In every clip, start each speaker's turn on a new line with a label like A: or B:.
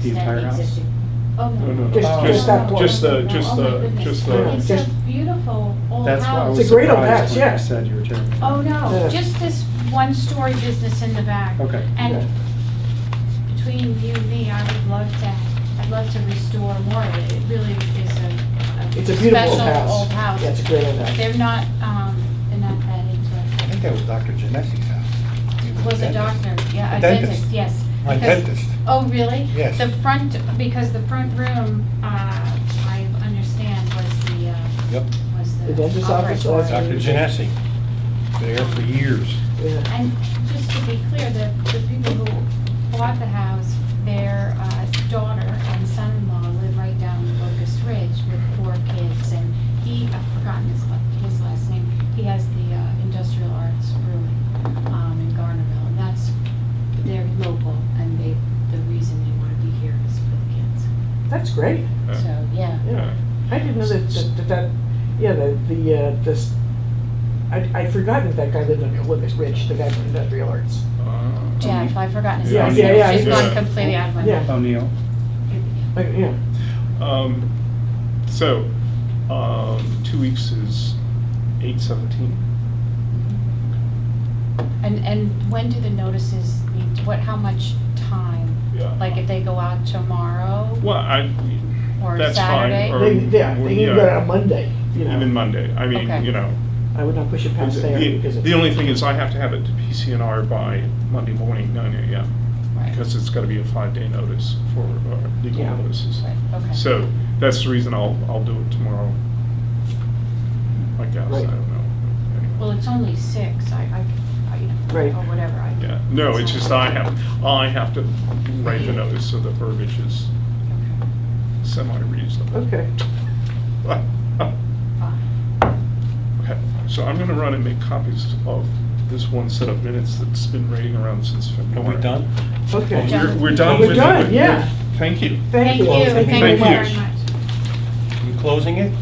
A: The entire
B: that
A: house?
B: existed. Oh,
A: No,
B: no.
A: no,
C: Just-
B: no, no,
C: just that
B: no,
C: one.
B: no,
C: just
B: no,
A: the- just
B: oh my
A: the-
B: goodness.
A: just the-
B: It's
C: just-
B: a beautiful old
A: That's why I
B: house.
A: was
C: It's a great old house,
A: surprised when
C: yeah.
A: you said you were tearing it
B: Oh,
A: down.
B: no,
C: Yeah.
B: just this one-story business in the back.
C: Oh.
A: Okay.
B: And between you and me, I would love to, I'd love to restore more of it. It really is a- a.
C: It's a beautiful old
B: Special
C: house.
B: old
C: Yeah, it's a
B: house.
C: great old house.
B: They're not, um, they're not that into
D: I think that was Dr. Genesi's house. He
B: it. Was a
D: dentist.
B: doctor, yeah,
D: A
B: a
D: dentist.
B: dentist, yes.
D: A
B: Because-
D: dentist.
B: Oh, really?
D: Yes.
B: The front, because the front room, uh, I understand was the, uh,
D: Yep,
B: was the.
C: The dentist's office or-
B: operating room.
D: Dr. Genesi. There for years.
C: Yeah.
B: And just to be clear, the, the people who bought the house, their uh, daughter and son-in-law live right down Locust Ridge with four kids. And he, I've forgotten his, la- his last name, he has the uh, industrial arts brewing um, in Garnerville. And that's, they're local and they, the reason they want to be here is for the kids.
C: That's great.
B: So, yeah.
C: Yeah. I didn't know that, that, that- that, yeah, the, the, uh, this, I, I'd forgotten that that guy lived on Olympus Ridge, the guy from Industrial Arts.
B: Jeff, I've forgotten his
C: Yeah,
B: last
C: yeah,
B: name.
C: yeah,
B: It's
C: yeah.
B: just gone completely out of my
C: Yeah.
B: mind.
A: O'Neill.
C: Like, yeah.
E: Um, so, um, two weeks is eight seventeen.
B: And, and when do the notices need, to- what, how much time?
E: Yeah.
B: Like if they go out tomorrow?
E: Well, I,
B: Or
E: that's fine.
B: Saturday?
E: or-
C: They, yeah,
E: or,
C: they can
E: yeah,
C: go on Monday, you
E: Even
C: know.
E: Monday. I mean,
B: Okay.
E: you know.
C: I would not push it past there because
E: The
C: it's.
E: the only thing is I have to have it to PCNR by Monday morning, nine AM,
B: Right.
E: because it's gotta be a five-day notice for uh, legal
C: Yeah.
E: notices.
B: Right, okay.
E: So, that's the reason I'll, I'll do it tomorrow. I guess, I
C: Right.
E: don't know. Anyway.
B: Well, it's only six, I, I, I- you
C: Right.
B: know, or whatever. I-
E: Yeah, no, it's just I have, I have to write the notice so the verbiage is
B: Okay,
E: semi-reasonable.
C: Okay.
B: fine.
E: Okay, So I'm gonna run and make copies of this one set of minutes that's been raiding around since
D: Are
E: February.
D: we done?
C: Okay.
E: We're- We're done
C: We're
E: with.
C: done,
E: with-
C: yeah.
E: Thank you.
B: Thank you,
D: Well,
B: thank you
E: thank you.
B: very much.
D: You closing it?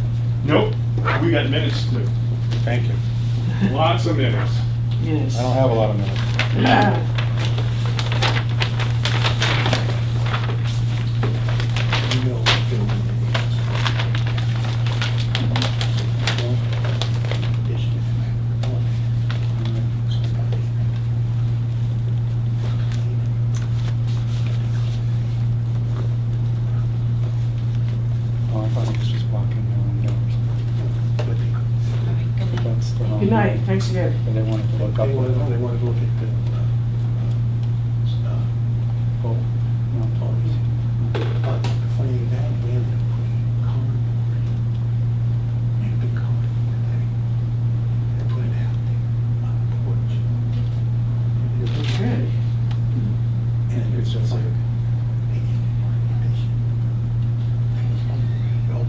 E: Nope, we got minutes to do,
D: Thank you.
E: lots of minutes.
C: Yes.
D: I don't have a lot of minutes.
C: Ah,
A: Oh, I thought it was just blocking their window or something. That's the wrong-
C: Good night, thanks again.
A: But they wanted to look up.
D: wanted to look at the, Oh. But funny that, we ended up putting cardboard, made the cardboard thing, and put it out there on the porch. And it was-
C: Okay.
D: And it's just like, they gave me more information. I was on the way over, they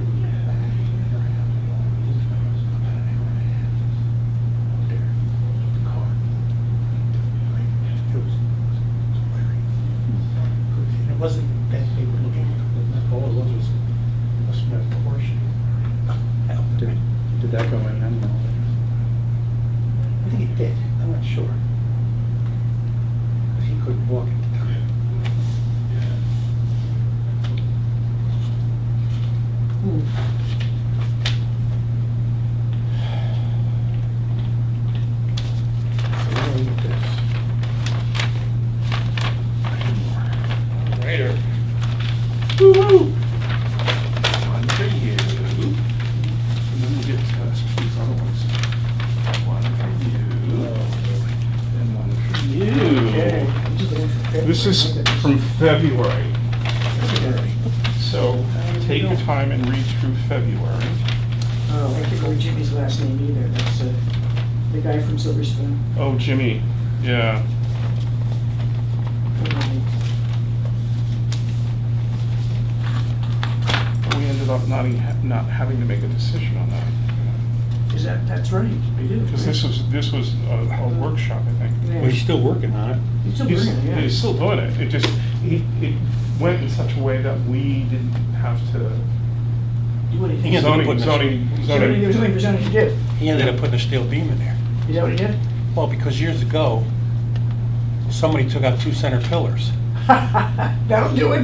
D: were back, and they were having all these things, about an hour and a half out there, the cardboard. Like, It was, it was- it was very and it wasn't that they were looking, all it was was a small portion.
A: Did did that go in? I don't know.
D: I think it did, I'm not sure. Because he couldn't walk at the time. So we're gonna leave this. Later.
E: Woo-hoo! One for you. And then we get to test these other ones. One for you. And one for
C: Okay.
E: you. This is from February, so take your time and read through February.
C: Oh, I can't remember Jimmy's last name either. That's uh, the guy from Silver Spoon.
E: Oh, Jimmy, yeah. We ended up not, e- not having to make a decision on that.
C: Is that, that's right, we do.
E: Because this was, this was a a workshop, I think.
C: Yeah.
D: Well, he's still working on it.
C: It's a
E: He's,
C: brilliant, yeah.
E: he's still doing it, it just, it, it went in such a way that we didn't have to.
C: Do anything.
D: Yeah,
C: Is
D: they can put
E: Zoning,
D: this-
E: zoning,
C: there
E: zoning.
C: anything- There's nothing for zoning to do.
D: He ended up putting a steel beam in there.
C: Is that what he did?
D: Well, because years ago, somebody took out two center pillars.
C: That'll do it.